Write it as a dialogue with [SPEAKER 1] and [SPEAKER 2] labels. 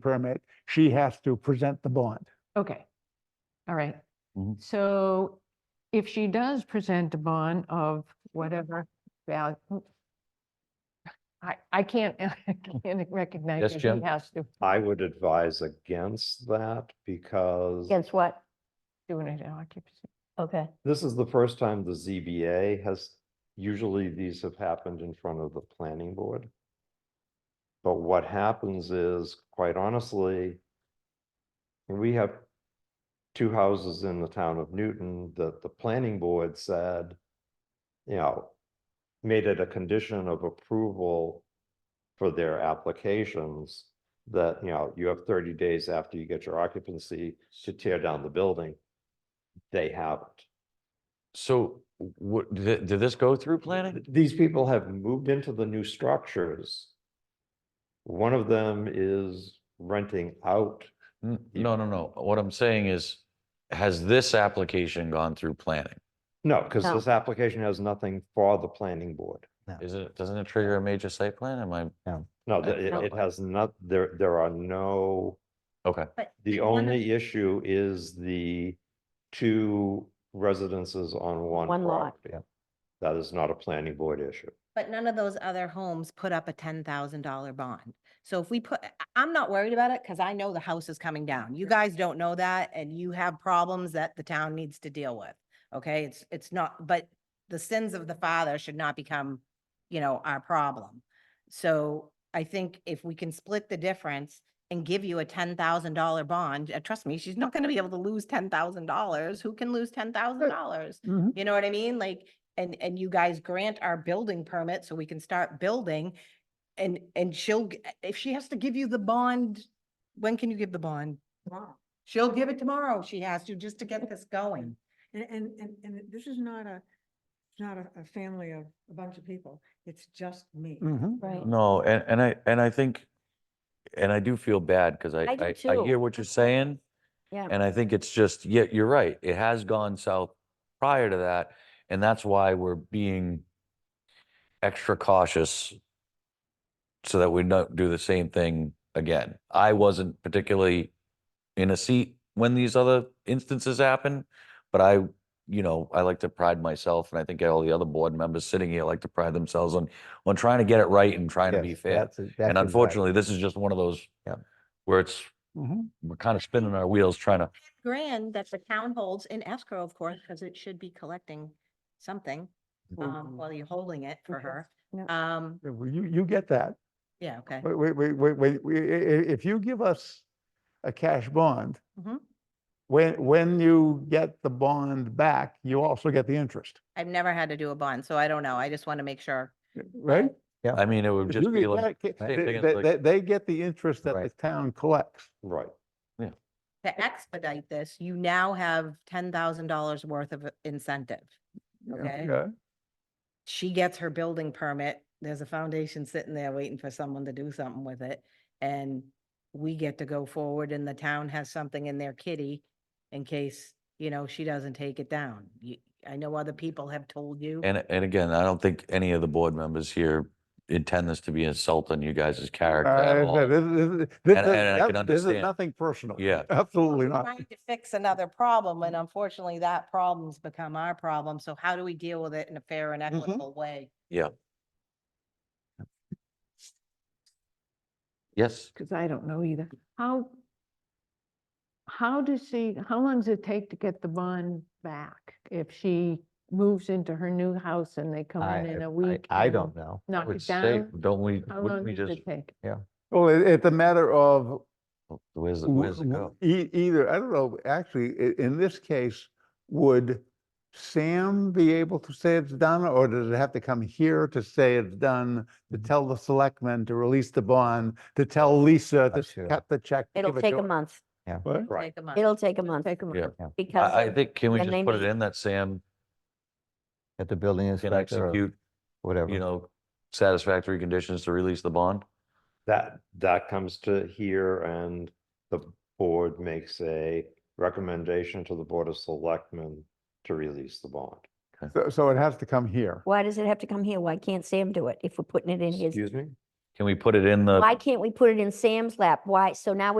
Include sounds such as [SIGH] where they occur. [SPEAKER 1] permit, she has to present the bond.
[SPEAKER 2] Okay. All right.
[SPEAKER 3] Mhm.
[SPEAKER 2] So if she does present a bond of whatever value, I, I can't, [LAUGHS] I can't recognize.
[SPEAKER 3] Yes,
[SPEAKER 2] that he
[SPEAKER 3] Jim?
[SPEAKER 2] Has to
[SPEAKER 4] I would advise against that because
[SPEAKER 5] Against what?
[SPEAKER 2] do it in occupancy.
[SPEAKER 5] Okay,
[SPEAKER 4] this is the first time the ZBA has, usually these have happened in front of the planning board. But what happens is, quite honestly, we have two houses in the town of Newton that the planning board said, you know, made it a condition of approval for their applications that, you know, you have thirty days after you get your occupancy to tear down the building. They haven't.
[SPEAKER 3] So what, did, did this go through planning?
[SPEAKER 4] Th- These people have moved into the new structures. One of them is renting out.
[SPEAKER 3] N- No, no, no. What I'm saying is, has this application gone through planning?
[SPEAKER 4] No, because
[SPEAKER 5] No.
[SPEAKER 4] this application has nothing for the planning board.
[SPEAKER 3] Is it, doesn't it trigger a major site plan? Am I,
[SPEAKER 4] No,
[SPEAKER 3] Uh,
[SPEAKER 4] th- it,
[SPEAKER 3] no.
[SPEAKER 4] it has not, there, there are no,
[SPEAKER 3] okay,
[SPEAKER 5] but.
[SPEAKER 4] the
[SPEAKER 5] one of-
[SPEAKER 4] only issue is the two residences on one
[SPEAKER 5] One lot.
[SPEAKER 4] property. That is not a planning board issue.
[SPEAKER 6] But none of those other homes put up a ten thousand dollar bond. So if we put, I- I'm not worried about it because I know the house is coming down. You guys don't know that and you have problems that the town needs to deal with. Okay, it's, it's not, but the sins of the father should not become, you know, our problem. So I think if we can split the difference and give you a ten thousand dollar bond, uh, trust me, she's not gonna be able to lose ten thousand dollars. Who can lose ten thousand dollars?
[SPEAKER 2] Mhm.
[SPEAKER 6] You know what I mean? Like, and, and you guys grant our building permit so we can start building. And, and she'll, g- if she has to give you the bond, when can you give the bond? Tomorrow. She'll give it tomorrow. She has to, just to get this going.
[SPEAKER 7] And, and, and, and it- this is not a, it's not a, a family of a bunch of people. It's just me.
[SPEAKER 1] Mhm.
[SPEAKER 5] Right.
[SPEAKER 3] no, and, and I, and I think, and I do feel bad because I,
[SPEAKER 5] I do
[SPEAKER 3] I, I
[SPEAKER 5] too.
[SPEAKER 3] hear what you're saying.
[SPEAKER 5] Yeah.
[SPEAKER 3] And I think it's just, yeah, you're right. It has gone south prior to that. And that's why we're being extra cautious so that we don't do the same thing again. I wasn't particularly in a seat when these other instances happen, but I, you know, I like to pride myself and I think all the other board members sitting here like to pride themselves on, on trying to get it right and trying to be
[SPEAKER 8] Yes,
[SPEAKER 3] fair.
[SPEAKER 8] that's- that's
[SPEAKER 3] And
[SPEAKER 8] exact-
[SPEAKER 3] unfortunately, this is just one of those
[SPEAKER 8] Yep.
[SPEAKER 3] where it's,
[SPEAKER 1] Mhm.
[SPEAKER 3] we're kind of spinning our wheels trying to
[SPEAKER 6] Grand that the town holds in escrow, of course, because it should be collecting something, um, while you're holding it for her. Um,
[SPEAKER 1] Mm-hmm. You, you get that.
[SPEAKER 6] yeah, okay.
[SPEAKER 1] Wait, wait, wait, wait, wait, we- i- i- if you give us a cash bond,
[SPEAKER 6] Mhm.
[SPEAKER 1] when, when you get the bond back, you also get the interest,
[SPEAKER 6] I've never had to do a bond, so I don't know. I just want to make sure.
[SPEAKER 1] right?
[SPEAKER 3] I mean, it would
[SPEAKER 1] If
[SPEAKER 3] just
[SPEAKER 1] you
[SPEAKER 3] be
[SPEAKER 1] get that
[SPEAKER 3] like,
[SPEAKER 1] ca-
[SPEAKER 3] same thing
[SPEAKER 1] They,
[SPEAKER 3] as
[SPEAKER 1] they-
[SPEAKER 3] like-
[SPEAKER 1] they- they get the interest that the
[SPEAKER 8] Right.
[SPEAKER 1] town collects.
[SPEAKER 4] Right.
[SPEAKER 6] To expedite this, you now have ten thousand dollars worth of incentive. Okay. She gets her building permit. There's a foundation sitting there waiting for someone to do something with it. And we get to go forward and the town has something in their kitty in case, you know, she doesn't take it down. You, I know other people have told you.
[SPEAKER 3] and, and again, I don't think any of the board members here intend this to be insulting you guys' character at
[SPEAKER 1] Uh,
[SPEAKER 3] all.
[SPEAKER 1] this- this- this-
[SPEAKER 3] And- and
[SPEAKER 1] that-
[SPEAKER 3] I can
[SPEAKER 1] This is
[SPEAKER 3] understand.
[SPEAKER 1] nothing personal.
[SPEAKER 3] Yeah.
[SPEAKER 1] Absolutely
[SPEAKER 6] We're
[SPEAKER 1] not.
[SPEAKER 6] Trying to fix another problem, and unfortunately, that problem's become our problem. So how do we deal with it in a fair and
[SPEAKER 1] Mhm.
[SPEAKER 6] equitable way?
[SPEAKER 3] Yes,
[SPEAKER 2] Because I don't know either. How, how does she, how long does it take to get the bond back? If she moves into her new house and they come
[SPEAKER 8] I-
[SPEAKER 2] in in
[SPEAKER 8] I-
[SPEAKER 2] a week?
[SPEAKER 8] I
[SPEAKER 2] and
[SPEAKER 8] don't know.
[SPEAKER 3] I
[SPEAKER 2] Knock
[SPEAKER 3] would
[SPEAKER 2] it
[SPEAKER 3] say,
[SPEAKER 2] down?
[SPEAKER 3] don't we,
[SPEAKER 2] How
[SPEAKER 3] wouldn't
[SPEAKER 2] long
[SPEAKER 3] we
[SPEAKER 2] does
[SPEAKER 3] just,
[SPEAKER 2] it take?
[SPEAKER 1] Well, it, it's a matter of
[SPEAKER 3] where's, it-
[SPEAKER 1] w-
[SPEAKER 3] where's it
[SPEAKER 1] w-
[SPEAKER 3] go?
[SPEAKER 1] e- Either, I don't know, actually, i- in this case, would Sam be able to say it's done? Or does it have to come here to say it's done,
[SPEAKER 8] Mm-hmm.
[SPEAKER 1] to tell the selectmen to release the bond, to tell Lisa
[SPEAKER 8] Not
[SPEAKER 1] to
[SPEAKER 8] sure.
[SPEAKER 1] cut the check? to
[SPEAKER 5] It'll
[SPEAKER 1] give it
[SPEAKER 5] take
[SPEAKER 1] to
[SPEAKER 5] a
[SPEAKER 1] her?
[SPEAKER 5] month.
[SPEAKER 1] What?
[SPEAKER 4] Right.
[SPEAKER 6] Take a month.
[SPEAKER 5] It'll take a month
[SPEAKER 2] Take a month.
[SPEAKER 3] Yeah.
[SPEAKER 5] because.
[SPEAKER 3] I, I think, can we
[SPEAKER 5] when
[SPEAKER 3] just
[SPEAKER 5] they
[SPEAKER 3] put it
[SPEAKER 5] meet.
[SPEAKER 3] in that Sam
[SPEAKER 8] At the building
[SPEAKER 3] can
[SPEAKER 8] inspector or
[SPEAKER 3] execute, you
[SPEAKER 8] whatever.
[SPEAKER 3] know, satisfactory conditions to release the bond?
[SPEAKER 4] That, that comes to here and the board makes a recommendation to the Board of Selectmen to release the bond.
[SPEAKER 1] So, so it has to come here.
[SPEAKER 5] Why does it have to come here? Why can't Sam do it if we're putting it in his?
[SPEAKER 4] Excuse me?
[SPEAKER 3] Can we put it in the?
[SPEAKER 5] Why can't we put it in Sam's lap? Why? So now